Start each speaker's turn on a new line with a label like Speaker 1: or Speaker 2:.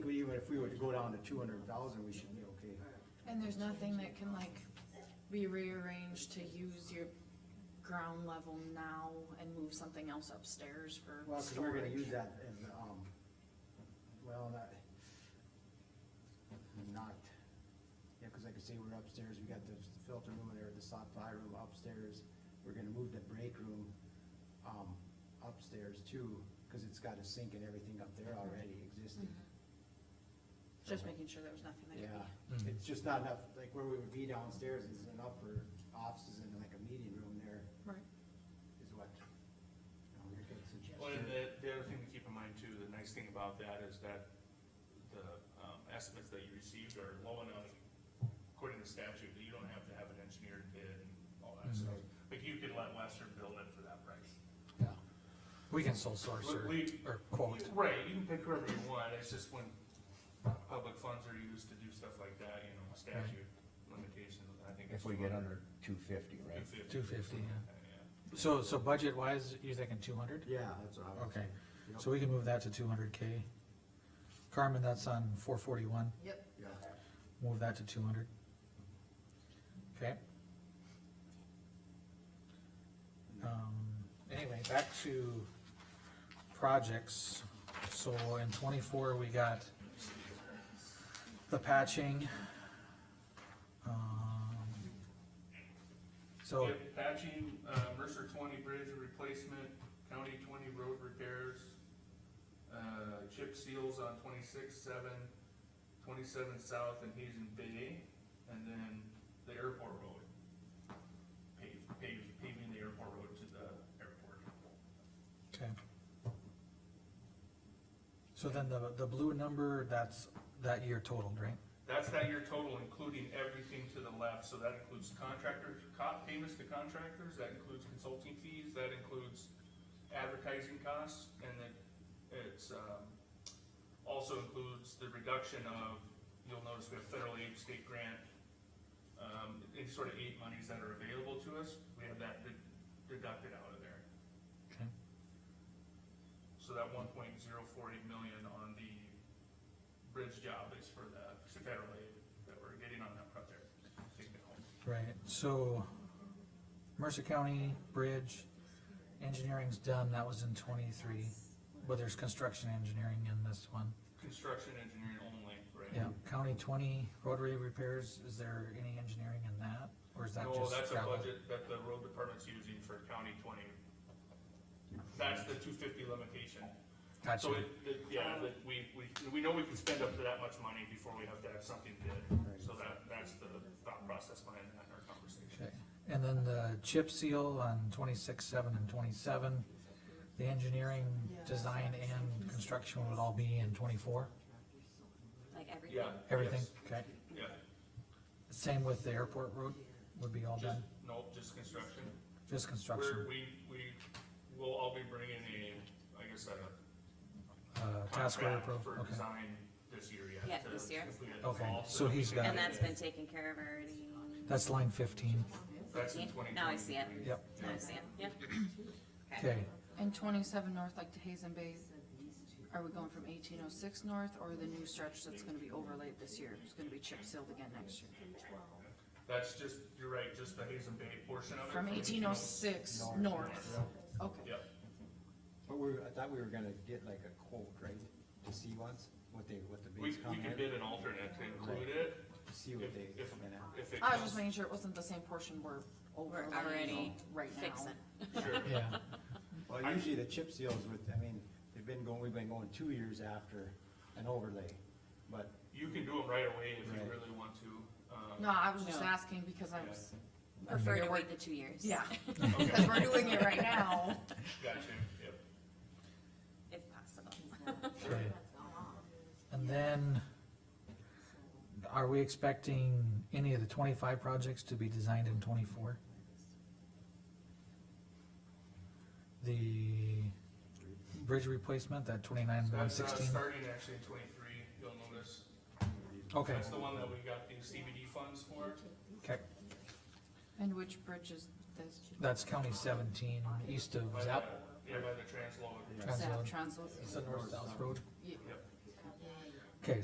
Speaker 1: to go down to two hundred thousand, we should be okay.
Speaker 2: And there's nothing that can like be rearranged to use your ground level now and move something else upstairs for
Speaker 1: Well, we we're gonna
Speaker 2: storage.
Speaker 1: use that as, um, well, not, not, yeah, cause like I say, we're upstairs, we got the filter room there, the soft fire room upstairs. We're gonna move the break room, um, upstairs too, cause it's got a sink and everything up there already existing.
Speaker 2: Just making sure there was nothing that could
Speaker 1: Yeah,
Speaker 2: be.
Speaker 3: Mhm.
Speaker 1: it's just not enough, like where we would be downstairs is enough for offices and like a meeting room there
Speaker 2: Right.
Speaker 1: is what. you know, you're good suggestion.
Speaker 4: Well, and the, the other thing to keep in mind too, the nice thing about that is that the, um, estimates that you received are low enough, according to statute, that you don't have to have an engineered bid and all that stuff.
Speaker 5: Mm-hmm.
Speaker 4: Like you could let Western build it for that price.
Speaker 1: Yeah.
Speaker 3: We can sole source or,
Speaker 4: We-
Speaker 3: or quote.
Speaker 4: Right, you can pick whoever you want, it's just when public funds are used to do stuff like that, you know, statute limitations, I think.
Speaker 5: If we get under two fifty, right?
Speaker 4: 250.
Speaker 3: 250, yeah.
Speaker 4: Yeah.
Speaker 3: So, so budget wise, you're thinking two hundred?
Speaker 1: Yeah, that's what I was.
Speaker 3: Okay,
Speaker 1: Yep.
Speaker 3: so we can move that to two hundred K. Carmen, that's on four forty-one,
Speaker 2: Yep.
Speaker 1: Yeah.
Speaker 3: move that to two hundred. Okay. Um, anyway, back to projects. So in twenty-four, we got the patching. Um, So.
Speaker 4: Yep, patching, uh, Mercer twenty bridge replacement, county twenty road repairs, uh, chip seals on twenty-six, seven, twenty-seven south and Hazen Bay, and then the airport road. Pave, pave, paving the airport road to the airport.
Speaker 3: Okay. So then the, the blue number, that's that year totaled, right?
Speaker 4: That's that year total, including everything to the left, so that includes contractor, co- payments to contractors, that includes consulting fees, that includes advertising costs, and then it's, um, also includes the reduction of, you'll notice we have federal aid, state grant, um, any sort of aid monies that are available to us, we have that de- deducted out of there.
Speaker 3: Okay.
Speaker 4: So that one point zero forty million on the bridge job is for the federal aid that we're getting on that project. Take it home.
Speaker 3: Right, so Mercer County Bridge, engineering's done, that was in twenty-three, but there's construction engineering in this one.
Speaker 4: Construction engineering only, right?
Speaker 3: Yeah, County twenty rotary repairs, is there any engineering in that, or is that just
Speaker 4: No,
Speaker 3: gravel?
Speaker 4: that's a budget that the road department's using for county twenty. That's the two fifty limitation.
Speaker 3: Gotcha,
Speaker 4: So it, it- yeah, that we, we, we know we can spend up to that much money before we have to have something bid. So that, that's the thought process behind that in our conversation.
Speaker 3: okay, and then the chip seal on twenty-six, seven and twenty-seven, the engineering, design and construction would all be in twenty-four?
Speaker 6: like everything.
Speaker 4: Yeah.
Speaker 3: Everything,
Speaker 4: yes,
Speaker 3: okay.
Speaker 4: Yeah,
Speaker 3: Same with the airport road, would be all
Speaker 4: just,
Speaker 3: done,
Speaker 4: no, just construction.
Speaker 3: just
Speaker 4: We're,
Speaker 3: construction,
Speaker 4: we, we will all be bringing a, I guess, a
Speaker 3: uh, task order
Speaker 4: contract
Speaker 3: pro,
Speaker 4: for
Speaker 3: okay.
Speaker 4: design this year yet.
Speaker 6: Yeah,
Speaker 4: to
Speaker 6: this year.
Speaker 4: complete it
Speaker 3: Okay,
Speaker 4: all,
Speaker 3: so
Speaker 4: that we
Speaker 3: he's
Speaker 4: can
Speaker 3: got
Speaker 4: get
Speaker 6: And that's
Speaker 4: it.
Speaker 6: been taken care of already.
Speaker 3: That's line fifteen,
Speaker 4: That's in twenty.
Speaker 6: Now I see it.
Speaker 3: yep,
Speaker 6: Now I see it. Yep.
Speaker 3: okay,
Speaker 2: And twenty-seven north, like to Hazen Bay, are we going from eighteen oh six north or the new stretch that's gonna be overlaid this year? It's gonna be chip sealed again next year.
Speaker 4: That's just, you're right, just the Hazen Bay portion of it.
Speaker 2: From eighteen oh six north. Okay.
Speaker 4: Yep,
Speaker 1: But we, I thought we were gonna get like a quote, right, to see once, what they, what the
Speaker 4: we,
Speaker 1: bids
Speaker 4: we
Speaker 1: come
Speaker 4: could
Speaker 1: in,
Speaker 4: bid an alternate to include it,
Speaker 1: to see what
Speaker 4: if-
Speaker 1: they,
Speaker 4: if-
Speaker 1: come in at.
Speaker 4: if it
Speaker 2: I was just
Speaker 4: comes.
Speaker 2: making sure it wasn't the same portion we're overlaying
Speaker 6: already
Speaker 2: right now.
Speaker 6: fixing.
Speaker 4: Sure.
Speaker 3: yeah,
Speaker 1: Well, usually the chip seals with, I mean, they've been going, we've been going two years after an overlay, but
Speaker 4: You can do it right away if you
Speaker 1: Right.
Speaker 4: really want to. um,
Speaker 2: No, I was just
Speaker 6: No.
Speaker 2: asking because I was,
Speaker 6: Prefer to wait the two years.
Speaker 2: yeah, because
Speaker 4: Okay,
Speaker 2: we're doing it right now.
Speaker 4: gotcha, yep.
Speaker 6: If possible.
Speaker 3: okay. And then, are we expecting any of the twenty-five projects to be designed in twenty-four? The bridge replacement, that twenty-nine, one
Speaker 4: That's, uh,
Speaker 3: sixteen,
Speaker 4: starting actually in twenty-three, you'll notice.
Speaker 3: okay,
Speaker 4: That's the one that we got the CBD funds for.
Speaker 3: okay,
Speaker 2: And which bridge is this?
Speaker 3: that's county seventeen, east of
Speaker 4: by the-
Speaker 3: Zap,
Speaker 4: Yeah, by the transload.
Speaker 3: Transload.
Speaker 2: Translo-
Speaker 3: it's the north-south road.
Speaker 2: yeah.
Speaker 4: Yep.